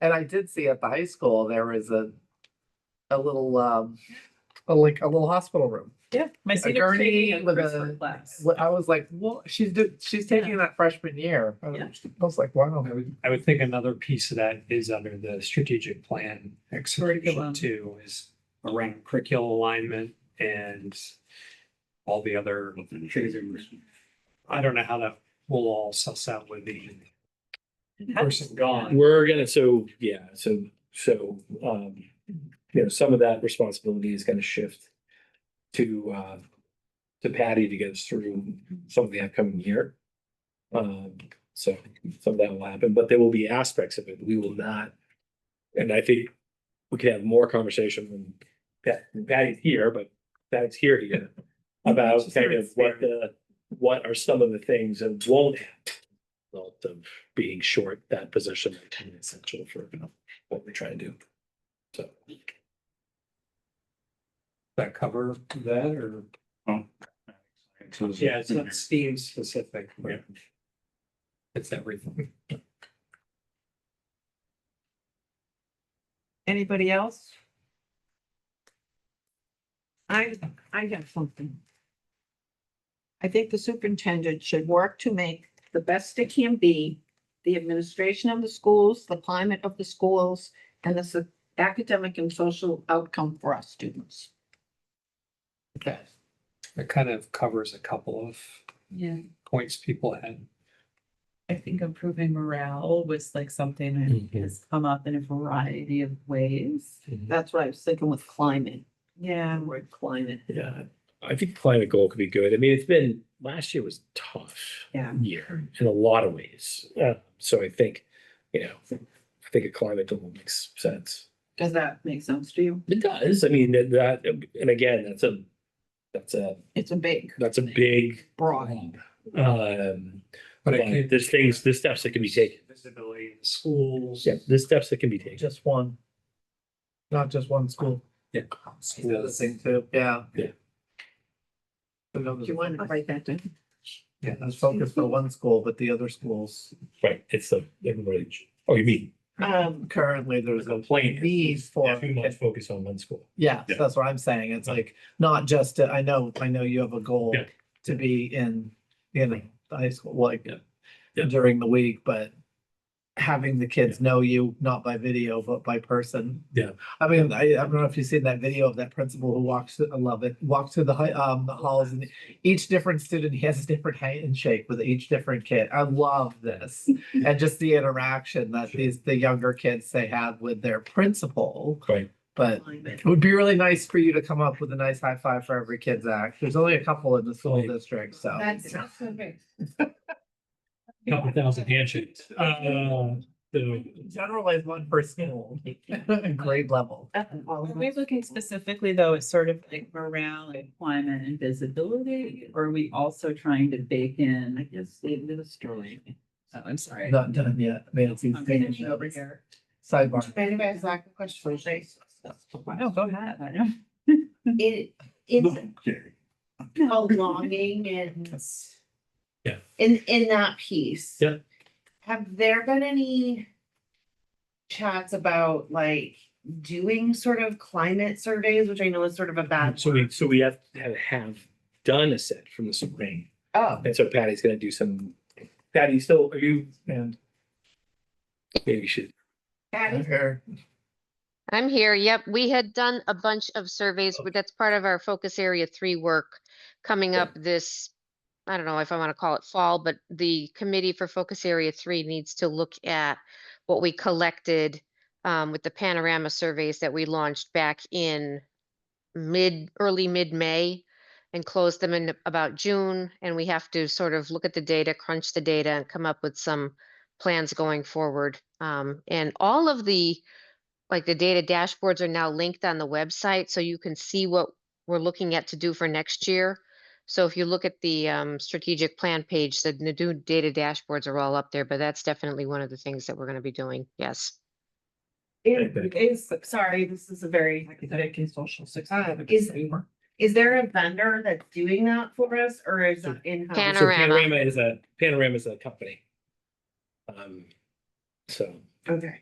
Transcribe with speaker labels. Speaker 1: And I did see at the high school, there was a, a little, um,
Speaker 2: a, like a little hospital room.
Speaker 3: Yeah. My senior
Speaker 1: gurney
Speaker 3: training
Speaker 1: with
Speaker 3: with
Speaker 1: a-
Speaker 3: a class.
Speaker 1: what- I was like, well, she's do, she's taking that freshman year.
Speaker 2: I was-
Speaker 3: Yeah.
Speaker 2: I was like, wow.
Speaker 4: I would, I would think another piece of that is under the strategic plan execution
Speaker 3: Curriculum.
Speaker 4: too, is around curricular alignment and all the other, I don't know how that will all suss out with the person gone.
Speaker 5: We're gonna, so, yeah, so, so, um, you know, some of that responsibility is gonna shift to, uh, to Patty to get us through some of the upcoming year. Um, so some of that will happen, but there will be aspects of it. We will not. And I think we could have more conversation when Pat, Patty's here, but Patty's here here about kind of what the, what are some of the things that won't happen. as a Result of being short that position that's essential for what we try to do. So.
Speaker 4: That cover that or? Yeah, it's not STEAM specific. but
Speaker 5: Yeah.
Speaker 4: It's everything.
Speaker 3: Anybody else? I, I have something. I think the superintendent should work to make the best it can be, the administration of the schools, the climate of the schools, and the s- academic and social outcome for our students.
Speaker 1: Okay.
Speaker 4: It kind of covers a couple of
Speaker 6: Yeah,
Speaker 4: points people had.
Speaker 6: I think improving morale was like something that
Speaker 4: Mhm.
Speaker 6: has come up in a variety of ways.
Speaker 3: That's what I was thinking with climate,
Speaker 6: Yeah.
Speaker 3: the word climate.
Speaker 5: Yeah, I think climate goal could be good. I mean, it's been, last year was a tough.
Speaker 6: Yeah.
Speaker 5: Year in a lot of ways. Uh, so I think, you know, I think a climate goal makes sense.
Speaker 6: Does that make sense to you?
Speaker 5: It does. I mean, that- that, and again, that's a, that's a,
Speaker 3: It's a big,
Speaker 5: that's a big.
Speaker 3: broad.
Speaker 5: Um, but
Speaker 4: But it could-
Speaker 5: there's things, there's steps that can be taken.
Speaker 4: Visibility in schools.
Speaker 5: Yeah, there's steps that can be taken.
Speaker 2: Just one. Not just one school.
Speaker 1: The other thing too, yeah.
Speaker 5: Yeah.
Speaker 1: So no,
Speaker 3: Do you want to write that down?
Speaker 1: Yeah, that's focused for one school, but the other schools,
Speaker 5: Right, it's the, everybody, oh, you mean,
Speaker 3: Um,
Speaker 1: currently there's a
Speaker 5: complaint.
Speaker 1: need for,
Speaker 5: Too much focus on one school.
Speaker 1: yeah,
Speaker 5: Yeah.
Speaker 1: that's what I'm saying. It's like, not just, to- I know, I know you have a goal
Speaker 5: Yeah.
Speaker 1: to be in, you know, the high school, like
Speaker 5: Yeah. Yeah.
Speaker 1: during the week, but having the kids know you, not by video, but by person.
Speaker 5: Yeah.
Speaker 1: I mean, I, I don't know if you've seen that video of that principal who walks, through- I love it, walks through the hi- um, the halls and each different student has a different handshake with each different kid. I love this. And just the interaction that
Speaker 5: Sure.
Speaker 1: these, the younger kids they had with their principal,
Speaker 5: Right.
Speaker 1: but
Speaker 3: climate.
Speaker 1: it would be really nice for you to come up with a nice high five for every kid's act. There's only a couple in the school
Speaker 5: Right.
Speaker 1: district, so.
Speaker 6: That's so big.
Speaker 4: Couple thousand handshakes. Uh, so-
Speaker 1: Generalize one per school, grade level.
Speaker 3: Uh,
Speaker 6: Are we looking specifically though at sort of like morale and climate and visibility? Or are we also trying to bake
Speaker 3: I
Speaker 6: in?
Speaker 3: guess the administration.
Speaker 6: Oh, I'm sorry.
Speaker 1: Not done yet. Nancy's
Speaker 6: I'm
Speaker 1: finished
Speaker 6: over
Speaker 1: over here.
Speaker 6: here.
Speaker 1: Sidebar.
Speaker 7: Anybody has like a question?
Speaker 6: No, go ahead. I don't.
Speaker 7: It, it's belonging and.
Speaker 5: Yeah.
Speaker 7: In, in that piece.
Speaker 5: Yeah.
Speaker 7: Have there been any chats about like doing sort of climate surveys, which I know is sort of a bad.
Speaker 5: So we, so we have, have, have done a set from the spring,
Speaker 7: Oh,
Speaker 5: and so Patty's gonna do some, Patty, you still, are you, and maybe you should,
Speaker 7: Patty?
Speaker 1: Here.
Speaker 8: I'm here. Yep. We had done a bunch of surveys, but that's part of our focus area three work coming
Speaker 5: Yeah.
Speaker 8: up this, I don't know if I want to call it fall, but the committee for focus area three needs to look at what we collected um, with the panorama surveys that we launched back in mid, early mid-May and closed them in about June. And we have to sort of look at the data, crunch the data and come up with some plans going forward. Um, and all of the like the data dashboards are now linked on the website, so you can see what we're looking at to do for next year. So if you look at the um, strategic plan page, the new data dashboards are all up there, but that's definitely one of the things that we're going to be doing. Yes.
Speaker 7: It is, sorry, this is a very,
Speaker 3: Academic and social success.
Speaker 7: Uh, is- is there a vendor that's doing that for us or is it in-house?
Speaker 5: so
Speaker 8: Panorama.
Speaker 5: Panorama is a, Panorama is a company. Um, so.
Speaker 7: Okay.